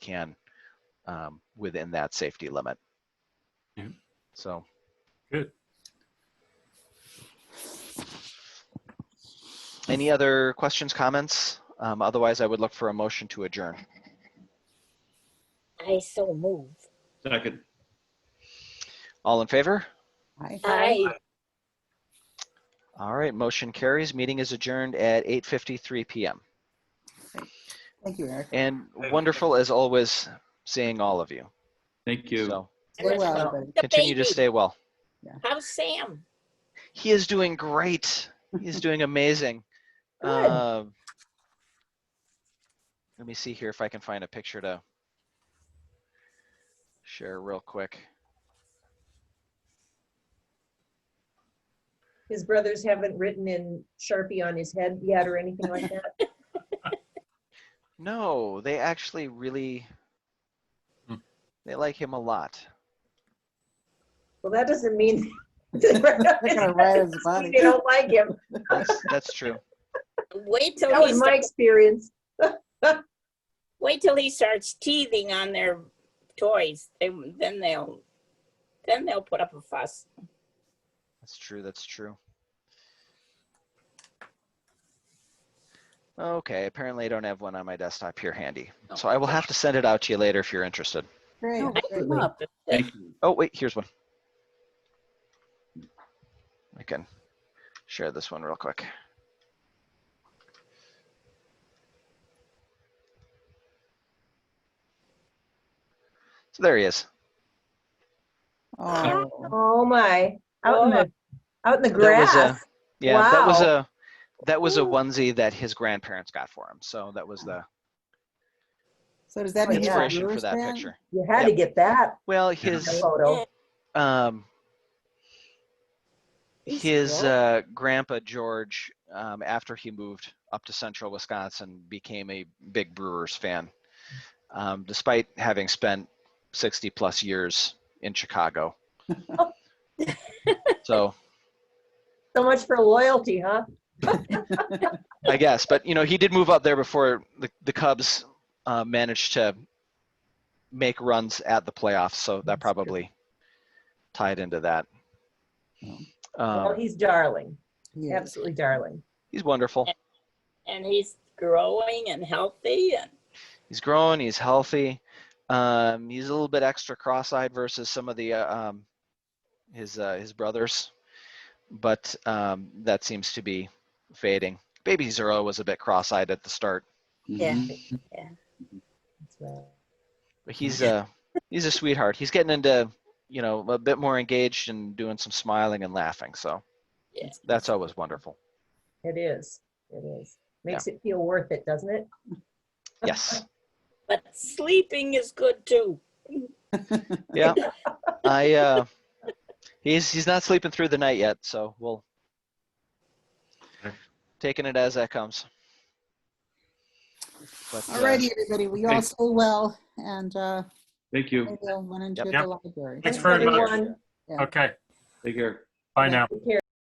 can um, within that safety limit. Yeah. So, Good. any other questions, comments? Um, Otherwise, I would look for a motion to adjourn. I so move. Second. All in favor? Uh, I All right, motion carries. Meeting is adjourned at 8:53 PM. Thank you, Eric. And wonderful as always, seeing all of you. Thank you. So Stay well, Well, everybody. The continue to baby. stay well. How's Sam? He is doing great. He is doing amazing. Good. Um, let me see here if I can find a picture to share real quick. His brothers haven't written in Sharpie on his head yet or anything like that? No, they actually really Hmm. they like him a lot. Well, that doesn't mean. They're gonna write his body. They don't like him. That's that's true. Wait till That he was my starts, experience. wait till he starts teething on their toys. They, then they'll then they'll put up a fuss. That's true. That's true. Okay, apparently I don't have one on my desktop here handy. So I will have to send it out to you later if you're interested. Great. I great. grew up with the- Thank you. Oh, wait, here's one. I can share this one real quick. So there he is. Oh, Oh, my. Out in the, out in That was the a- grass. Yeah, that was Wow. a that was a Ooh. onesie that his grandparents got for him. So that was the so does that mean? yeah. inspiration for yours that then? picture. You had to get that Well, in the his photo. um, He's his cool. uh, grandpa George, um, after he moved up to central Wisconsin, became a big Brewers fan, um, despite having spent 60 plus years in Chicago. so So much for loyalty, huh? I guess, but you know, he did move up there before the, the Cubs uh, managed to make runs at the playoffs, so that probably tied into that. Yeah. Well, Um, he's darling, Yeah. absolutely darling. he's wonderful. and he's growing and healthy and he's grown he's healthy um, he's a little bit extra cross-eyed versus some of the uh, um, his uh, his brothers but um, that seems to be fading babies are always a bit cross-eyed at the start Yeah. Mm-hmm. Mhm. That's right. but he's uh he's a sweetheart he's getting into you know a bit more engaged and doing some smiling and laughing so Yeah. that's always wonderful It is, it is. Makes it feel worth it, doesn't it? yes but sleeping is good too. yeah i uh he's he's not sleeping through the night yet so we'll Okay. taking it as that comes but All uh, righty, everybody. We all Thanks. stay well and uh, Thank you. everyone enjoy Yep. the library. Thanks very much. Everyone, Okay. Take care. Yeah. Bye now. Take care.